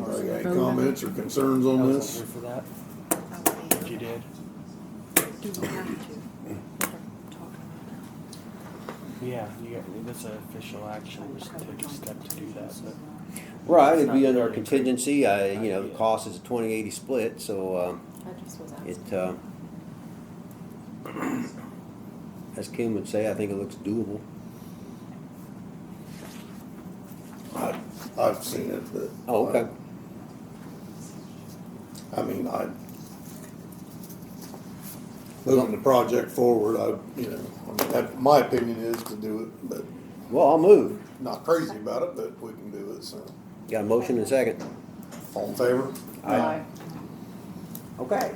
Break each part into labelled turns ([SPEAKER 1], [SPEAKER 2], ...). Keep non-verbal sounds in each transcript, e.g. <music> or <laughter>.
[SPEAKER 1] Oh,
[SPEAKER 2] Any comments or concerns
[SPEAKER 3] I
[SPEAKER 2] on
[SPEAKER 3] was
[SPEAKER 2] this?
[SPEAKER 3] here for that, if you did.
[SPEAKER 4] Do we have to? We're talking about
[SPEAKER 3] Yeah, you got, that's an official action, just take a step to do that, but.
[SPEAKER 1] Right, it'd
[SPEAKER 3] It's
[SPEAKER 1] be
[SPEAKER 3] not
[SPEAKER 1] under our
[SPEAKER 3] really-
[SPEAKER 1] contingency, I, you know, the
[SPEAKER 3] Yeah.
[SPEAKER 1] cost is a twenty eighty split, so, um,
[SPEAKER 5] I just was asking.
[SPEAKER 1] it, uh, as Kim would say, I think it looks doable.
[SPEAKER 2] I, I've seen it, but.
[SPEAKER 1] Oh, okay,
[SPEAKER 2] I mean, I, moving the project forward, I, you know, I mean, that, my opinion is to do it, but
[SPEAKER 1] well, I'll move,
[SPEAKER 2] not crazy about it, but we can do it, so.
[SPEAKER 1] got a motion and a second.
[SPEAKER 2] All in favor?
[SPEAKER 1] Aye. Okay.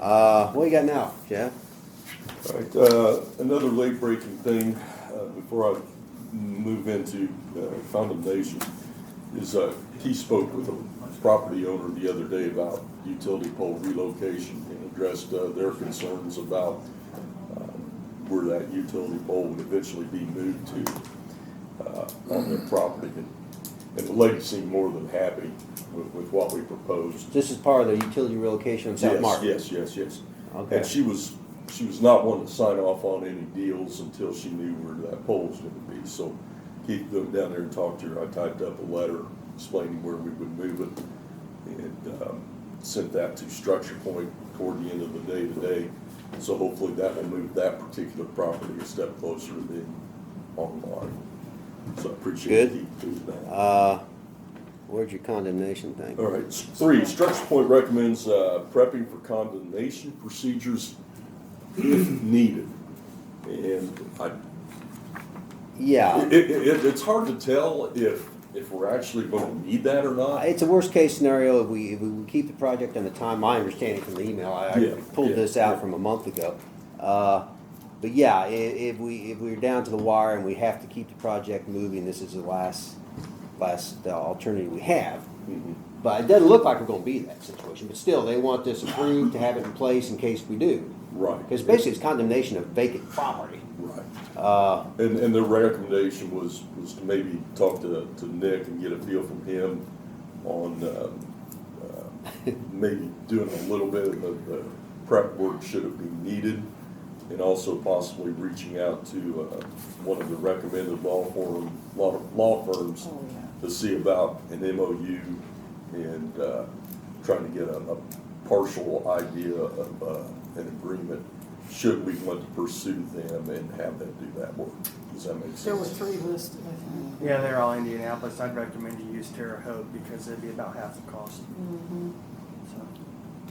[SPEAKER 1] Uh, what you got now, Jeff?
[SPEAKER 6] All right, uh, another late breaking thing, uh, before I move into uh, condemnation, is, uh, he spoke with a property owner the other day about utility pole relocation and addressed, uh, their concerns about, uh, where that utility pole would eventually be moved to, uh, on their property. And- And the lady seemed more than happy with, with what we proposed.
[SPEAKER 1] This is part of the utility relocation on South
[SPEAKER 6] Yes,
[SPEAKER 1] Market.
[SPEAKER 6] Yes, yes, yes.
[SPEAKER 1] Okay.
[SPEAKER 6] And she was, she was not wanting to sign off on any deals until she knew where that pole was gonna be, so Keith went down there and talked to her, I typed up a letter explaining where we would move it, and, um, sent that to Structure Point toward the end of the day today, so hopefully that will move that particular property a step closer to being online. So I appreciate
[SPEAKER 1] Good.
[SPEAKER 6] Keith doing that.
[SPEAKER 1] Uh, where's your condemnation thing?
[SPEAKER 6] All right, s- three, Structure Point recommends uh, prepping for condemnation procedures if needed. And I,
[SPEAKER 1] Yeah,
[SPEAKER 6] it, it, it's hard to tell if, if we're actually gonna need that or not.
[SPEAKER 1] Uh, it's a worst-case scenario if we, if we keep the project on the time, I understand it from the email, I I
[SPEAKER 6] Yeah,
[SPEAKER 1] pulled
[SPEAKER 6] yeah,
[SPEAKER 1] this
[SPEAKER 6] yeah.
[SPEAKER 1] out from a month ago. Uh, But yeah, i- if we, if we're down to the wire and we have to keep the project moving, this is the last, last uh, alternative we have.
[SPEAKER 6] Mhm.
[SPEAKER 1] But it doesn't look like we're gonna be in that situation, but still, they want this approved to have it in place in case we do.
[SPEAKER 6] Right.
[SPEAKER 1] Because basically, it's condemnation of vacant property.
[SPEAKER 6] Right.
[SPEAKER 1] Uh,
[SPEAKER 6] And, and their recommendation was, was to maybe talk to, to Nick and get a feel from him on, um, uh, maybe doing a little bit of the prep work should it be needed, and also possibly reaching out to, uh, one of the recommended law firm, law, law firms
[SPEAKER 5] Oh, yeah.
[SPEAKER 6] to see about an MOU and, uh, trying to get a, a partial idea of, uh, an agreement, should we want to pursue them and have them do that work. Does that make
[SPEAKER 5] There were
[SPEAKER 6] sense?
[SPEAKER 5] three listed, I think.
[SPEAKER 7] Yeah, they're all Indianapolis. I'd recommend you use Terre Haute because it'd be about half the cost.
[SPEAKER 4] Mm-hmm.
[SPEAKER 7] So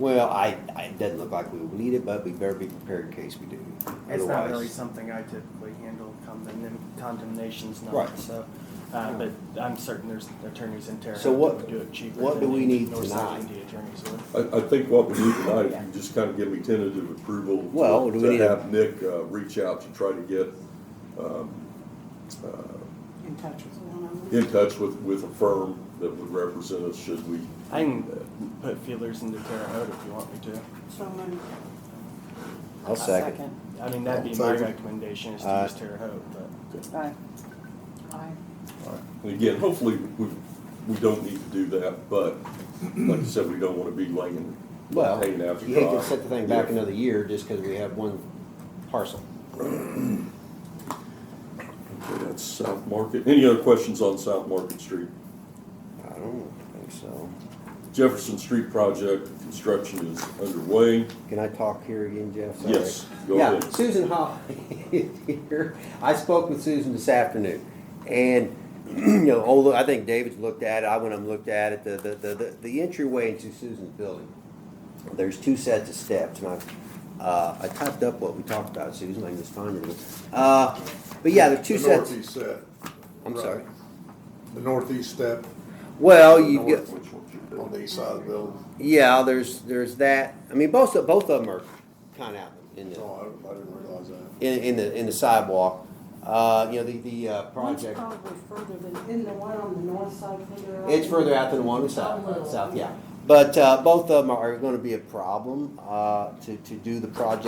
[SPEAKER 1] Well, I, I, it doesn't look like we will need it, but we better be prepared in case we do.
[SPEAKER 7] It's not really
[SPEAKER 1] Otherwise-
[SPEAKER 7] something I typically handle, condemn- condemnation's
[SPEAKER 1] Right.
[SPEAKER 7] not, so. Uh, but I'm certain there's attorneys in Terre
[SPEAKER 1] So
[SPEAKER 7] Haute
[SPEAKER 1] what-
[SPEAKER 7] that would do it cheaper.
[SPEAKER 1] what do
[SPEAKER 7] than
[SPEAKER 1] we need
[SPEAKER 7] Northside
[SPEAKER 1] tonight?
[SPEAKER 7] Indy attorneys would.
[SPEAKER 6] I, I think what we need tonight, if you just kind of give me tentative approval. to-
[SPEAKER 1] Well, do we need
[SPEAKER 6] To
[SPEAKER 1] a-
[SPEAKER 6] have Nick, uh, reach out to try to get, um, uh,
[SPEAKER 5] In touch with one of them.
[SPEAKER 6] in touch with, with a firm that would represent us should we.
[SPEAKER 7] I can uh, put feelers into Terre Haute if you want me to.
[SPEAKER 5] So moved.
[SPEAKER 1] I'll second.
[SPEAKER 7] I mean, that'd be
[SPEAKER 2] Sounds
[SPEAKER 7] my
[SPEAKER 2] like-
[SPEAKER 7] recommendation is to
[SPEAKER 1] Uh,
[SPEAKER 7] use Terre Haute, but
[SPEAKER 5] Aye. Aye.
[SPEAKER 6] And again, hopefully, we, we don't need to do that, but like I said, we don't want to be laying,
[SPEAKER 1] Well,
[SPEAKER 6] hanging out to
[SPEAKER 1] you hate
[SPEAKER 6] dry.
[SPEAKER 1] to set the thing back
[SPEAKER 6] Yeah.
[SPEAKER 1] another year just because we have one parcel.
[SPEAKER 6] Okay, That's South Market. Any other questions on South Market Street?
[SPEAKER 1] I don't think so.
[SPEAKER 6] Jefferson Street project construction is underway.
[SPEAKER 1] Can I talk here again, Jeff? Sorry.
[SPEAKER 6] Yes, go
[SPEAKER 1] yeah,
[SPEAKER 6] ahead.
[SPEAKER 1] Susan Holly is <laughs> here. I spoke with Susan this afternoon, and <clears throat> you know, although I think David's looked at it, I went and looked at it. The the the, the, the entryway into Susan's building. There's two sets of steps, and I uh, I typed up what we talked about, Susan. I can just find it. Uh, but yeah, there's two
[SPEAKER 2] The
[SPEAKER 1] sets.
[SPEAKER 2] northeast set,
[SPEAKER 1] I'm
[SPEAKER 2] right.
[SPEAKER 1] sorry.
[SPEAKER 2] the northeast step
[SPEAKER 1] Well, you
[SPEAKER 2] North.
[SPEAKER 1] get.
[SPEAKER 6] Which one should do?
[SPEAKER 2] on the east side of the building.
[SPEAKER 1] Yeah, there's, there's that, I mean, both, of- both of them are kind of out in the,
[SPEAKER 2] Oh, I, I didn't realize that.
[SPEAKER 1] in, in the, in the sidewalk. Uh, you know, the, the, uh,
[SPEAKER 5] One's
[SPEAKER 1] project,
[SPEAKER 5] probably further than, isn't the one on the north side further out?
[SPEAKER 1] it's further out than the one on the south, south, yeah. But, uh, both of them are gonna be a problem, uh, to, to do the project